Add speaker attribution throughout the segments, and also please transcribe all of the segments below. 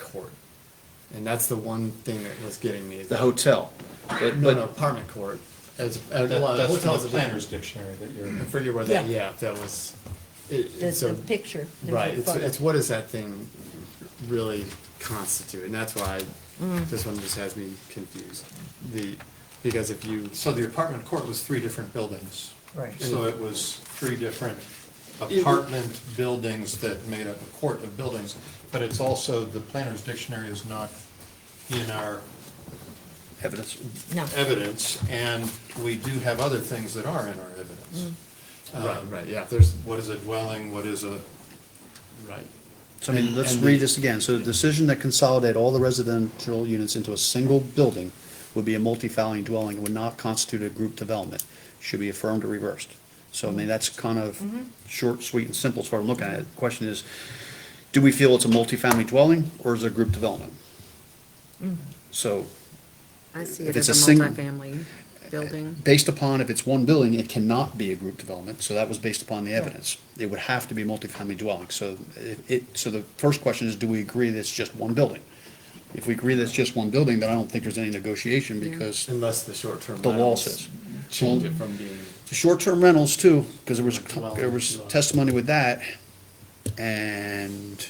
Speaker 1: court. And that's the one thing that was getting me. is
Speaker 2: the
Speaker 1: that-
Speaker 2: hotel. But,
Speaker 1: No, no,
Speaker 2: but,
Speaker 1: apartment court. As, uh,
Speaker 3: That-
Speaker 1: well,
Speaker 3: That's from
Speaker 1: hotel's
Speaker 3: the
Speaker 1: a different.
Speaker 3: planner's dictionary that you're,
Speaker 1: I forget where that,
Speaker 4: Yeah.
Speaker 1: yeah, that was. it- it-
Speaker 4: That's
Speaker 1: so-
Speaker 4: the picture. the
Speaker 1: Right, it's,
Speaker 4: photo.
Speaker 1: it's what does that thing really constitute? And that's why
Speaker 4: Mm.
Speaker 1: this one just has me confused. The, because if you,
Speaker 3: so the apartment court was three different buildings.
Speaker 4: Right.
Speaker 3: So it was three different apartment buildings that made up a court of buildings. But it's also, the planner's dictionary is not in our
Speaker 2: evidence,
Speaker 4: No,
Speaker 3: evidence, and we do have other things that are in our evidence.
Speaker 1: right, right, um, yeah, there's,
Speaker 3: What is a dwelling, what is a,
Speaker 1: right.
Speaker 2: so I mean,
Speaker 1: And-
Speaker 2: let's
Speaker 1: and
Speaker 2: read
Speaker 1: the-
Speaker 2: this again. So the decision that consolidate all the residential units into a single building would be a multifamily dwelling, and would not constitute a group development, should be affirmed or reversed. So I mean, that's kind of short, sweet, and simple as far as I'm looking at it. The Question is, do we feel it's a multifamily dwelling, or is it a group development? So,
Speaker 5: I see it
Speaker 2: If
Speaker 5: as
Speaker 2: it's a
Speaker 5: a
Speaker 2: single-
Speaker 5: multifamily building.
Speaker 2: based upon if it's one building, it cannot be a group development, so that was based upon the evidence. It would have to be multifamily dwelling, so it- it, so the first question is, do we agree that it's just one building? If we agree that it's just one building, then I don't think there's any negotiation,
Speaker 5: Yeah.
Speaker 2: because
Speaker 1: Unless the short-term.
Speaker 2: the law
Speaker 1: rentals
Speaker 2: says.
Speaker 1: Change it from being,
Speaker 2: The Short-term rentals too, because there was,
Speaker 1: Dwelling,
Speaker 2: there was
Speaker 1: dwelling.
Speaker 2: testimony with that, and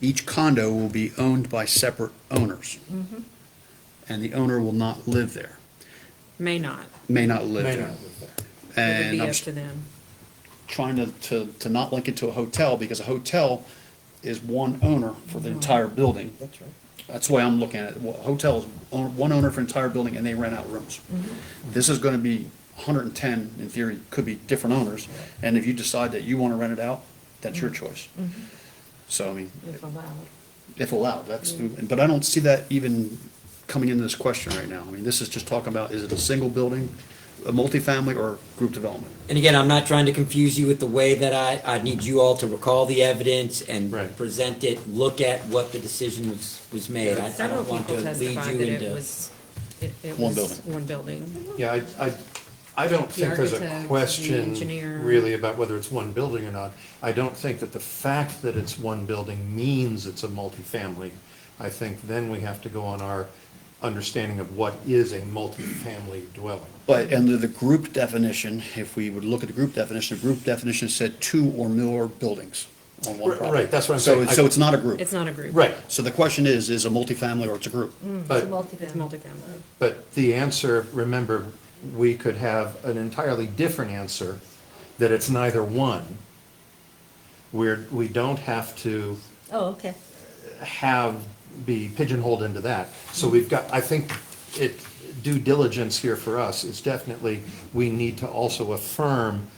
Speaker 2: each condo will be owned by separate owners.
Speaker 5: Mm-hmm.
Speaker 2: And the owner will not live there,
Speaker 5: May not.
Speaker 2: may not live
Speaker 3: may
Speaker 2: there.
Speaker 3: not live there.
Speaker 5: It would
Speaker 2: And
Speaker 5: be
Speaker 2: I'm
Speaker 5: up
Speaker 2: s-
Speaker 5: to them.
Speaker 2: trying to, to, to not link it to a hotel, because a hotel is one owner for
Speaker 5: Mm-hmm.
Speaker 2: the entire building.
Speaker 4: that's right.
Speaker 2: That's the way I'm looking at it. Well, Hotel is own- one owner for entire building, and they rent out rooms. This is gonna be hundred and ten, in theory, could be different owners, and if you decide that you wanna rent it out, that's your choice. So, I mean,
Speaker 5: If allowed.
Speaker 2: if allowed, that's, but I don't see that even coming into this question right now. I mean, this is just talking about, is it a single building, a multifamily, or group development?
Speaker 6: And again, I'm not trying to confuse you with the way that I, I need you all to recall the evidence and
Speaker 3: Right.
Speaker 6: present it, look at what the decision was, was made. I- I
Speaker 5: Several
Speaker 6: don't want to
Speaker 5: people
Speaker 6: lead
Speaker 5: testified
Speaker 6: you
Speaker 5: that it
Speaker 6: into.
Speaker 5: was, it it was
Speaker 2: One building.
Speaker 5: one building.
Speaker 3: Yeah, I, I, I don't think there's
Speaker 5: architect,
Speaker 3: a
Speaker 5: the engineer.
Speaker 3: question really about whether it's one building or not. I don't think that the fact that it's one building means it's a multifamily. I think then we have to go on our understanding of what is a multifamily dwelling.
Speaker 2: But under the group definition, if we would look at the group definition, the group definition said two or more buildings on one
Speaker 3: Right,
Speaker 2: property.
Speaker 3: right, that's what I'm
Speaker 2: So
Speaker 3: saying.
Speaker 2: it's- So it's not a group.
Speaker 5: It's not a group.
Speaker 3: Right,
Speaker 2: So the question is, is a multifamily or it's a group?
Speaker 4: It's a
Speaker 3: but,
Speaker 5: Mm-hmm. It's
Speaker 4: multifamily.
Speaker 5: multifamily.
Speaker 3: but the answer, remember, we could have an entirely different answer, that it's neither one. We're, we don't have to.
Speaker 4: Oh, okay.
Speaker 3: have, be pigeonholed into that. So we've got, I think it, due diligence here for us is definitely, we need to also affirm,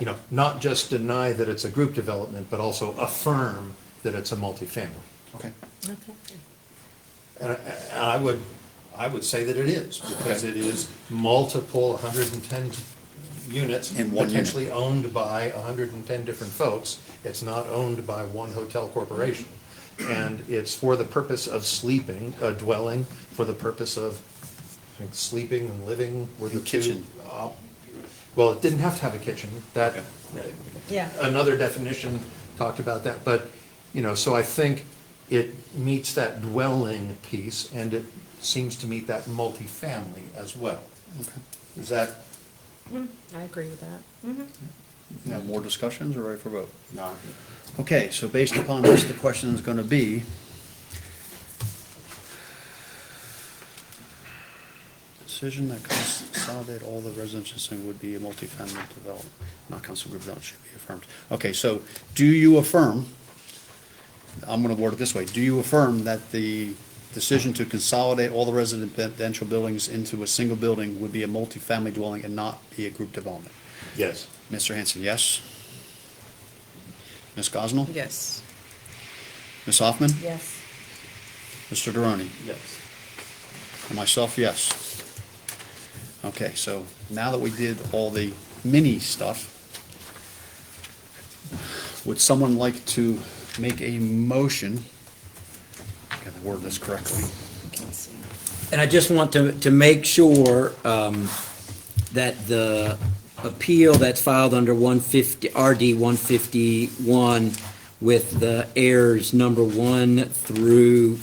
Speaker 3: you know, not just deny that it's a group development, but also affirm that it's a multifamily.
Speaker 2: Okay.
Speaker 3: And I- and I would, I would say that it is, because it is multiple, hundred and ten units.
Speaker 2: In one unit.
Speaker 3: Potentially owned by hundred and ten different folks. It's not owned by one hotel corporation. And it's for the purpose of sleeping, a dwelling, for the purpose of I think, sleeping and living were the
Speaker 2: And
Speaker 3: two.
Speaker 2: kitchen.
Speaker 3: uh, Well, it didn't have to have a kitchen, that, uh,
Speaker 4: Yeah.
Speaker 3: another definition talked about that, but, you know, so I think it meets that dwelling piece, and it seems to meet that multifamily as well. Is that?
Speaker 5: I agree with that.
Speaker 2: Now, more discussions or ready for vote?
Speaker 3: No.
Speaker 2: Okay, so based upon this, the question is gonna be, decision that consolidate all the residential thing would be a multifamily development, not council group development should be affirmed. Okay, so do you affirm, I'm gonna word it this way, do you affirm that the decision to consolidate all the residential buildings into a single building would be a multifamily dwelling and not be a group development?
Speaker 3: Yes.
Speaker 2: Mr. Hanson, yes? Ms. Gosnell?
Speaker 5: Yes.
Speaker 2: Ms. Hoffman?
Speaker 4: Mm-hmm. Yes.
Speaker 2: Mr. Deroni?
Speaker 3: Yes.
Speaker 2: And myself, yes. Okay, so now that we did all the mini stuff, would someone like to make a motion? Got to word this correctly.
Speaker 6: And I just want to, to make sure, um, that the appeal that's filed under one fifty, RD one fifty-one with the errors number one through